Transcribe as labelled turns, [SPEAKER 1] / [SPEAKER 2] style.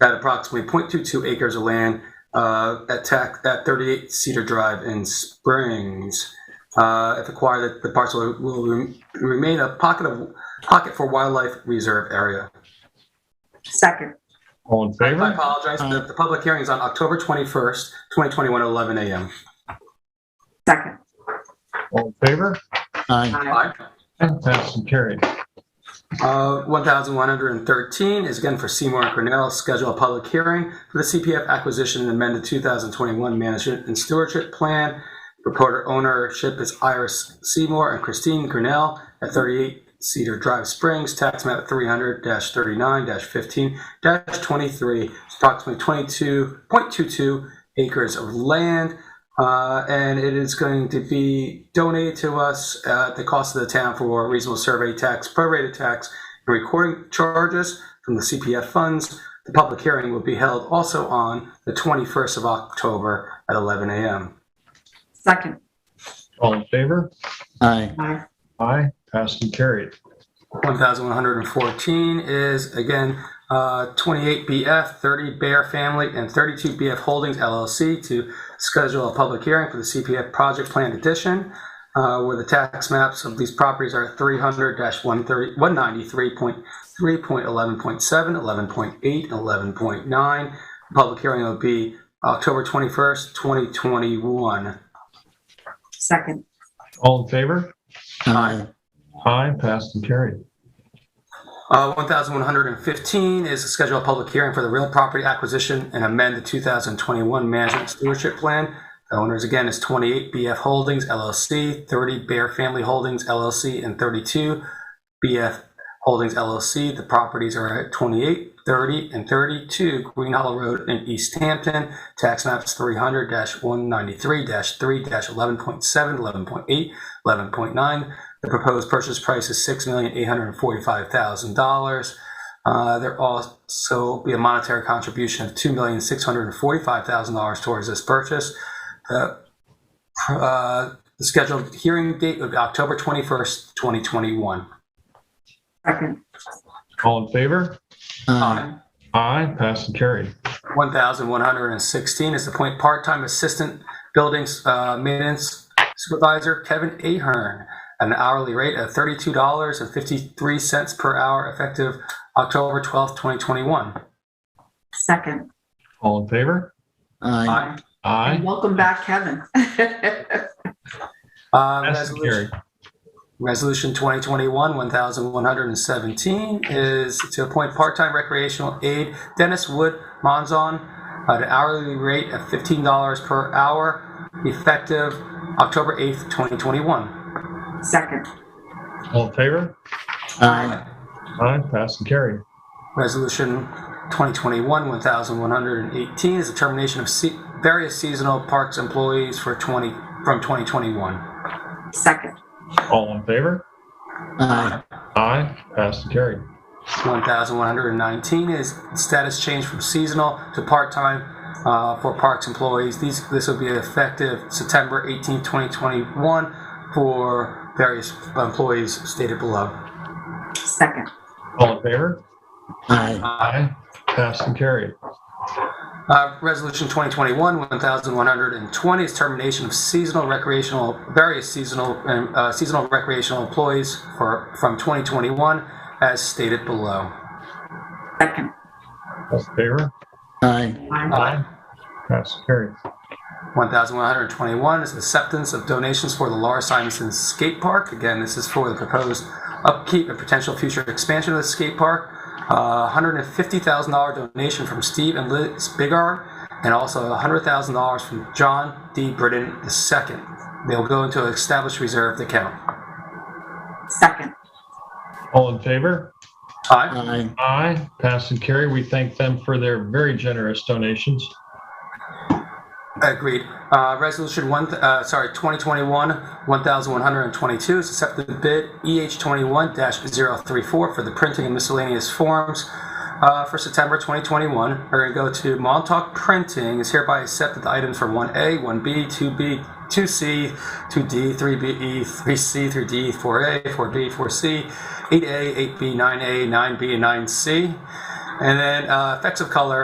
[SPEAKER 1] at approximately 0.22 acres of land uh, at tac- at 38 Cedar Drive in Springs. Uh, If acquired, the the parcel will rem- remain a pocket of, pocket for wildlife reserve area.
[SPEAKER 2] Second.
[SPEAKER 3] All in
[SPEAKER 1] I
[SPEAKER 3] favor?
[SPEAKER 1] apologize, the, the public hearing is on October 21st, 2021, at 11 a.m.
[SPEAKER 2] Second.
[SPEAKER 3] All in favor?
[SPEAKER 4] aye,
[SPEAKER 2] Aye.
[SPEAKER 3] Passed and carried.
[SPEAKER 1] Uh, 1113 is again for Seymour and Cornell, schedule a public hearing for the CPF acquisition and amended 2021 management and stewardship plan. Reporter ownership is Iris Seymour and Christine Cornell at 38 Cedar Drive Springs, tax map 300-39-15-23, approximately 22.22 acres of land. Uh, and it is going to be donated to us at the cost of the town for reasonable survey tax, prorated tax, and recording charges from the CPF funds. The public hearing will be held also on the 21st of October at 11 a.m.
[SPEAKER 2] Second.
[SPEAKER 3] All in favor?
[SPEAKER 4] aye,
[SPEAKER 2] Aye.
[SPEAKER 3] Aye. Passed and carried.
[SPEAKER 1] 1114 is again uh, 28BF, 30 Bear Family, and 32BF Holdings LLC to schedule a public hearing for the CPF Project Plan Edition, uh, where the tax maps of these properties are 300-193.3.11.7, 11.8, 11.9. Public hearing will be October 21st, 2021.
[SPEAKER 2] Second.
[SPEAKER 3] All in favor?
[SPEAKER 4] aye,
[SPEAKER 3] Aye. Passed and carried.
[SPEAKER 1] Uh, 1,115 is to schedule a public hearing for the real property acquisition and amend the 2021 management stewardship plan. The owners again is 28 BF Holdings LLC, 30 Bear Family Holdings LLC, and 32 BF Holdings LLC. The properties are at 28, 30, and 32 Green Hollow Road in East Hampton. Tax maps 300-193-3-11.7, 11.8, 11.9, the proposed purchase price is six million eight hundred and forty-five thousand dollars. Uh, There also be a monetary contribution of two million six hundred and forty-five thousand dollars towards this purchase. The uh, the scheduled hearing date would be October twenty-first, twenty twenty-one.
[SPEAKER 2] Second.
[SPEAKER 3] All in favor?
[SPEAKER 4] aye,
[SPEAKER 3] Aye. Passed and carried.
[SPEAKER 1] 1,116 is to appoint part-time assistant buildings uh, maintenance supervisor Kevin Ahern at an hourly rate of $32.53 per hour effective October 12th, 2021.
[SPEAKER 2] Second.
[SPEAKER 3] All in favor?
[SPEAKER 4] aye,
[SPEAKER 2] And
[SPEAKER 3] Aye.
[SPEAKER 2] welcome back, Kevin.
[SPEAKER 1] Uh,
[SPEAKER 3] Passed and
[SPEAKER 1] resolution-
[SPEAKER 3] carried.
[SPEAKER 1] Resolution 2021-1117 is to appoint part-time recreational aide Dennis Wood Monzon at an hourly rate of $15 per hour effective October 8th, 2021.
[SPEAKER 2] Second.
[SPEAKER 3] All in favor?
[SPEAKER 4] aye,
[SPEAKER 3] Aye. Passed and carried.
[SPEAKER 1] Resolution 2021-1118 is the termination of se- various seasonal parks employees for 20, from 2021.
[SPEAKER 2] Second.
[SPEAKER 3] All in favor?
[SPEAKER 4] aye,
[SPEAKER 3] Aye. Passed and carried.
[SPEAKER 1] 1119 is status change from seasonal to part-time uh, for parks employees. These, this will be effective September 18, 2021 for various employees stated below.
[SPEAKER 2] Second.
[SPEAKER 3] All in favor?
[SPEAKER 4] aye,
[SPEAKER 3] Aye. Passed and carried.
[SPEAKER 1] Uh, Resolution 2021-1120 is termination of seasonal recreational, various seasonal, um, uh, seasonal recreational employees for, from 2021 as stated below.
[SPEAKER 2] Second.
[SPEAKER 3] All in favor?
[SPEAKER 4] aye,
[SPEAKER 2] Aye.
[SPEAKER 3] Aye. Passed and carried.
[SPEAKER 1] 1,121 is acceptance of donations for the Laura Simonson Skate Park. Again, this is for the proposed upkeep and potential future expansion of the skate park. Uh, $150,000 donation from Steve and Liz Bigar, and also $100,000 from John D. Britton II. They'll go into an established reserve account.
[SPEAKER 2] Second.
[SPEAKER 3] All in favor?
[SPEAKER 1] Aye.
[SPEAKER 4] aye,
[SPEAKER 3] Aye. Passed and carried. We thank them for their very generous donations.
[SPEAKER 1] Agreed. Uh, Resolution one, th- uh, sorry, 2021, 1,122 is accepted bid EH 21-034 for the printing and miscellaneous forms uh, for September 2021. We're going to go to Montauk Printing is hereby accepted the items for 1A, 1B, 2B, 2C, 2D, 3BE, 3C, 3D, 4A, 4B, 4C, 8A, 8B, 9A, 9B, and 9C. And then uh, effects of color